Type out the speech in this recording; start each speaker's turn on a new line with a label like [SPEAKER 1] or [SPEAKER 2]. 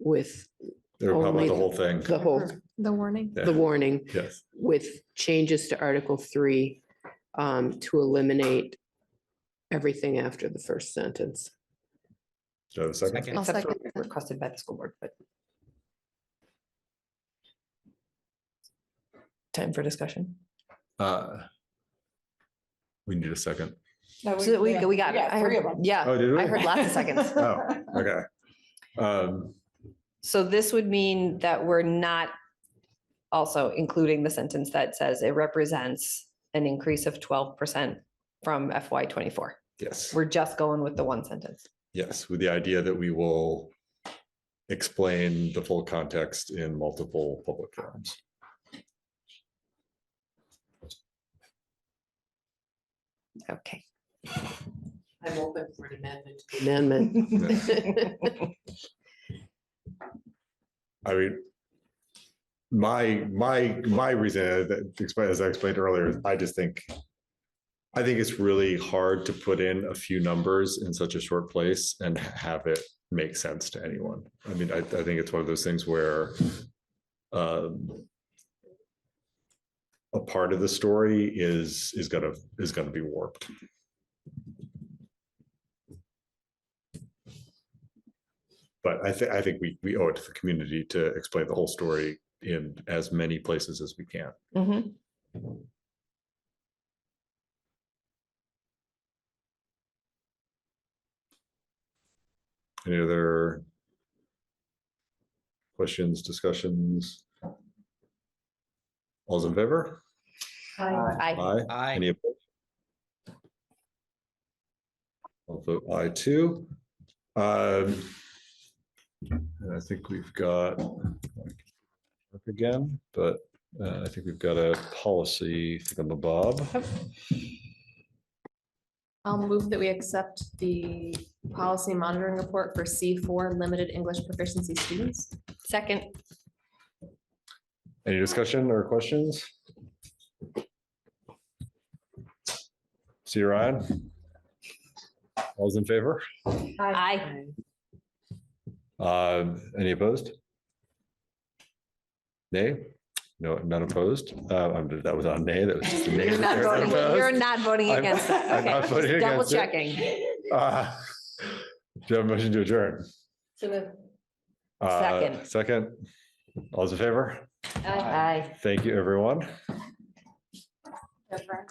[SPEAKER 1] with
[SPEAKER 2] Or how about
[SPEAKER 1] Only
[SPEAKER 2] the whole thing?
[SPEAKER 1] the whole,
[SPEAKER 3] The warning.
[SPEAKER 1] the
[SPEAKER 2] Yeah,
[SPEAKER 1] warning
[SPEAKER 2] Yes,
[SPEAKER 1] with changes to Article Three um, to eliminate everything after the first sentence.
[SPEAKER 2] do I have a second?
[SPEAKER 3] I'll
[SPEAKER 4] Except for
[SPEAKER 3] second that.
[SPEAKER 4] requested by the school board, but. Time for discussion.
[SPEAKER 2] Uh, We need a second.
[SPEAKER 4] So we, we got it. I heard- Yeah,
[SPEAKER 2] Oh, did we?
[SPEAKER 4] I heard lots of seconds.
[SPEAKER 2] Oh, okay. Um,
[SPEAKER 4] So this would mean that we're not also including the sentence that says it represents an increase of twelve percent from FY twenty-four.
[SPEAKER 2] yes,
[SPEAKER 4] We're just going with the one sentence.
[SPEAKER 2] yes, with the idea that we will explain the full context in multiple public forums.
[SPEAKER 4] Okay.
[SPEAKER 1] I'm open for an amendment. Amendment.
[SPEAKER 2] I mean, my, my, my reason, as I explained- as I explained earlier, is I just think, I think it's really hard to put in a few numbers in such a short place and have it make sense to anyone. I mean, I, I think it's one of those things where um, a part of the story is, is gonna, is gonna be warped. But I think, I think we, we owe it to the community to explain the whole story in as many places as we can.
[SPEAKER 4] Mhm.
[SPEAKER 2] Any other questions, discussions? All's in favor? Uh,
[SPEAKER 4] I,
[SPEAKER 2] Aye.
[SPEAKER 5] Aye.
[SPEAKER 2] Any opposed? I'll vote aye too. Um, And I think we've got look again, but uh, I think we've got a policy from Bob.
[SPEAKER 3] I'll move that we accept the policy monitoring report for C four limited English proficiency students.
[SPEAKER 4] second,
[SPEAKER 2] Any discussion or questions? See you, Ryan. All's in favor?
[SPEAKER 4] I,
[SPEAKER 2] Um, Any opposed? Nay? No, none opposed? Uh, I'm- That was on nay, that was just a nay.
[SPEAKER 4] you're not
[SPEAKER 2] there.
[SPEAKER 4] voting, you're
[SPEAKER 2] Opposed?
[SPEAKER 4] not voting
[SPEAKER 2] I'm-
[SPEAKER 4] against
[SPEAKER 2] I'm
[SPEAKER 4] that.
[SPEAKER 2] not voting
[SPEAKER 4] Okay, double
[SPEAKER 2] against it.
[SPEAKER 4] checking.
[SPEAKER 2] Uh, Do you have a motion to adjourn? Uh,
[SPEAKER 4] Second.
[SPEAKER 2] Second? All's in favor?
[SPEAKER 4] Aye.
[SPEAKER 2] Thank you, everyone.
[SPEAKER 3] Deborah.